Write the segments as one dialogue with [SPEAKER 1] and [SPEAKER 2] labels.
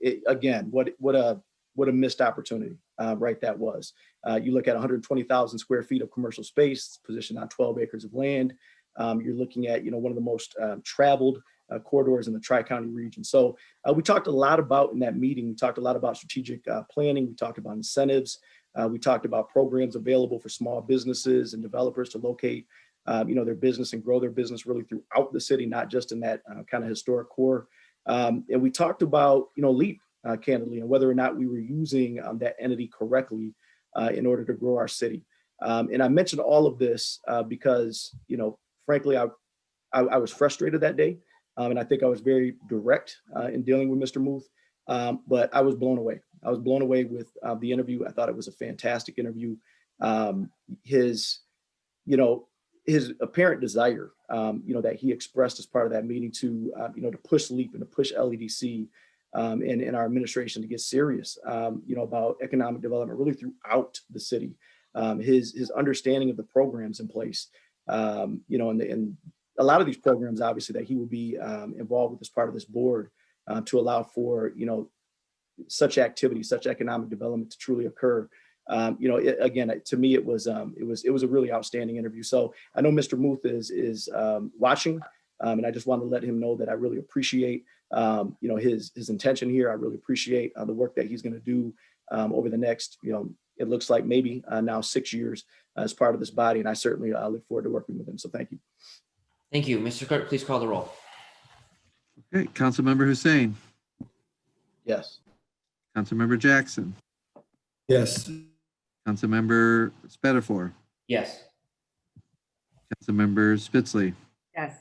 [SPEAKER 1] it, again, what, what a, what a missed opportunity, uh, right, that was. Uh, you look at hundred and twenty thousand square feet of commercial space, positioned on twelve acres of land. Um, you're looking at, you know, one of the most, um, traveled uh, corridors in the tri-county region. So, uh, we talked a lot about in that meeting, we talked a lot about strategic, uh, planning, we talked about incentives. Uh, we talked about programs available for small businesses and developers to locate, uh, you know, their business and grow their business really throughout the city, not just in that, uh, kind of historic core um, and we talked about, you know, LEAP uh, candidly and whether or not we were using um, that entity correctly uh, in order to grow our city. Um, and I mentioned all of this uh, because, you know, frankly, I, I, I was frustrated that day. Um, and I think I was very direct uh, in dealing with Mr. Muth. Um, but I was blown away. I was blown away with uh, the interview. I thought it was a fantastic interview. Um, his, you know, his apparent desire, um, you know, that he expressed as part of that meeting to, uh, you know, to push LEAP and to push LEDC um, and, and our administration to get serious, um, you know, about economic development really throughout the city. Um, his, his understanding of the programs in place, um, you know, and, the- and a lot of these programs, obviously, that he will be um, involved with as part of this board uh, to allow for, you know, such activity, such economic development to truly occur. Um, you know, it, again, to me, it was, um, it was, it was a really outstanding interview. So I know Mr. Muth is is um, watching, um, and I just want to let him know that I really appreciate um, you know his his intention here. I really appreciate uh, the work that he's going to do um, over the next you know it looks like maybe uh, now six years as part of this body, and I certainly uh, look forward to working with him. So thank you.
[SPEAKER 2] Thank you. Mr. Clerk, please call the roll.
[SPEAKER 3] Okay, Councilmember Hussein,
[SPEAKER 1] Yes.
[SPEAKER 3] Councilmember Jackson,
[SPEAKER 4] Yes.
[SPEAKER 3] Councilmember Spatafor,
[SPEAKER 2] Yes.
[SPEAKER 3] Councilmember Spitzley,
[SPEAKER 5] Yes.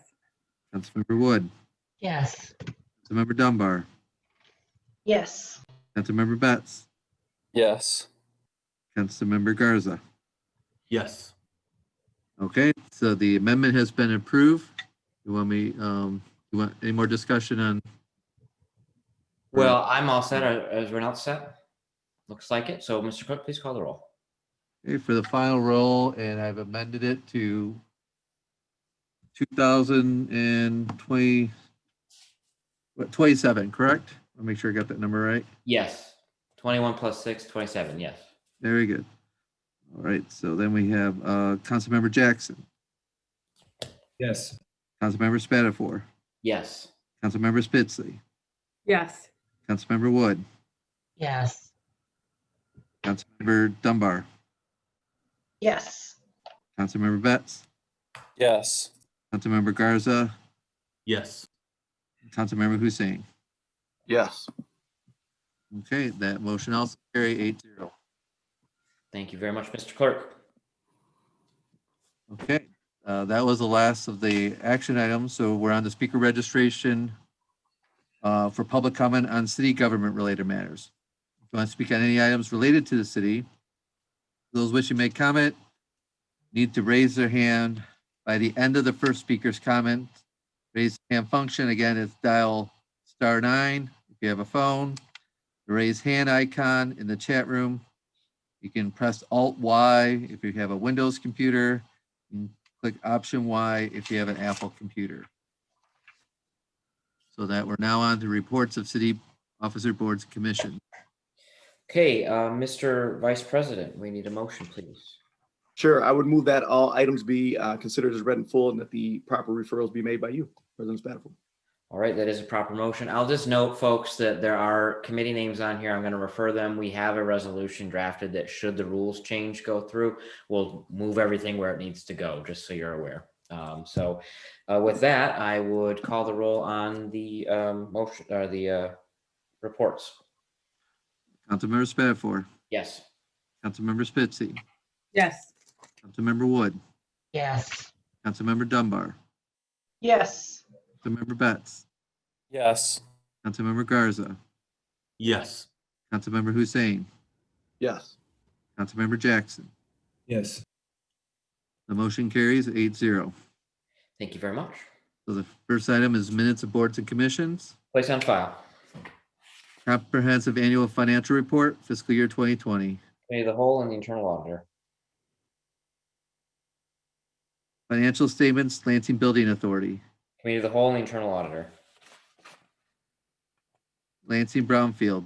[SPEAKER 3] Councilmember Wood,
[SPEAKER 6] Yes.
[SPEAKER 3] Councilmember Dunbar,
[SPEAKER 6] Yes.
[SPEAKER 3] Councilmember Betts,
[SPEAKER 7] Yes.
[SPEAKER 3] Councilmember Garza.
[SPEAKER 4] Yes.
[SPEAKER 3] Okay, so the amendment has been approved. You want me, um, you want any more discussion on?
[SPEAKER 2] Well, I'm all set. uh, Are- Is Renault set? Looks like it. So, Mr. Clerk, please call the roll.
[SPEAKER 3] Okay, for the final roll, and I've amended it to two thousand and twenty, what, twenty-seven, correct? I'll make sure I got that number right.
[SPEAKER 2] Yes. 21 plus 6, 27. Yes.
[SPEAKER 3] Very good. All right, so then we have uh Councilmember Jackson,
[SPEAKER 4] Yes.
[SPEAKER 3] Councilmember Spatafor,
[SPEAKER 2] Yes.
[SPEAKER 3] Councilmember Spitzley,
[SPEAKER 5] Yes.
[SPEAKER 3] Councilmember Wood,
[SPEAKER 6] Yes.
[SPEAKER 3] Councilmember Dunbar,
[SPEAKER 6] Yes.
[SPEAKER 3] Councilmember Betts,
[SPEAKER 7] Yes.
[SPEAKER 3] Councilmember Garza,
[SPEAKER 4] Yes.
[SPEAKER 3] Councilmember Hussein.
[SPEAKER 1] Yes.
[SPEAKER 3] Okay, that motion also carry eight zero.
[SPEAKER 2] Thank you very much, Mr. Clerk.
[SPEAKER 3] Okay, uh, that was the last of the action items, so we're on the speaker registration uh, for public comment on city government related matters. If you want to speak on any items related to the city, those wishing to make comment need to raise their hand by the end of the first speaker's comment. Raise hand function, again, it's dial star nine if you have a phone. The raise hand icon in the chat room. You can press alt Y if you have a Windows computer. and Click option Y if you have an Apple computer. So that we're now on to reports of city officer boards and commission.
[SPEAKER 2] Okay, uh, Mr. Vice President, we need a motion, please.
[SPEAKER 1] Sure. I would move that all items be uh, considered as read and full, and that the proper referrals be made by you, President Spatafor.
[SPEAKER 2] All right, that is a proper motion. I'll just note, folks, that there are committee names on here. I'm going to refer them. We have a resolution drafted that should the rules change go through, we'll move everything where it needs to go, just so you're aware. Um, so uh, with that, I would call the roll on the um, motion or the uh, reports.
[SPEAKER 3] Councilmember Spatafor,
[SPEAKER 2] Yes.
[SPEAKER 3] Councilmember Spitzley,
[SPEAKER 5] Yes.
[SPEAKER 3] Councilmember Wood,
[SPEAKER 6] Yes.
[SPEAKER 3] Councilmember Dunbar,
[SPEAKER 6] Yes.
[SPEAKER 3] Councilmember Betts,
[SPEAKER 7] Yes.
[SPEAKER 3] Councilmember Garza,
[SPEAKER 4] Yes.
[SPEAKER 3] Councilmember Hussein,
[SPEAKER 1] Yes.
[SPEAKER 3] Councilmember Jackson.
[SPEAKER 4] Yes.
[SPEAKER 3] The motion carries eight zero.
[SPEAKER 2] Thank you very much.
[SPEAKER 3] So the first item is minutes of boards and commissions.
[SPEAKER 2] Place on file.
[SPEAKER 3] Comprehensive Annual Financial Report, fiscal year 2020.
[SPEAKER 2] Committee of the whole and the internal auditor.
[SPEAKER 3] Financial Statements, Lansing Building Authority.
[SPEAKER 2] Committee of the whole and the internal auditor.
[SPEAKER 3] Lansing Brownfield.